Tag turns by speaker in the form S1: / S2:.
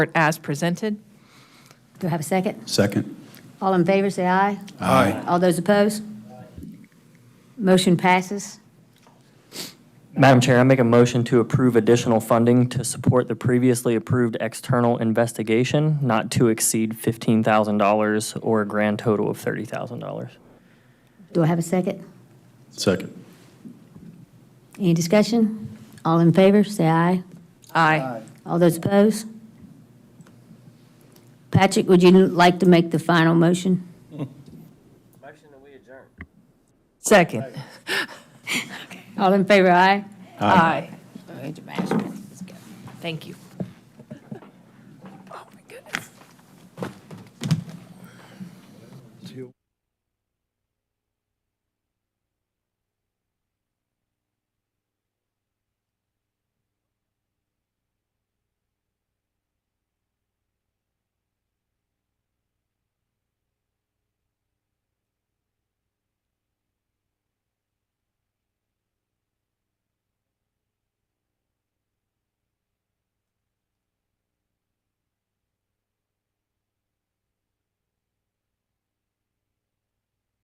S1: report as presented.
S2: Do I have a second?
S3: Second.
S2: All in favor, say aye.
S3: Aye.
S2: All those opposed? Motion passes.
S4: Madam Chair, I make a motion to approve additional funding to support the previously approved external investigation not to exceed $15,000 or a grand total of $30,000.
S2: Do I have a second?
S3: Second.
S2: Any discussion? All in favor, say aye.
S1: Aye.
S2: All those opposed? Patrick, would you like to make the final motion?
S1: Second.
S2: All in favor, aye.
S1: Aye. Thank you. Oh,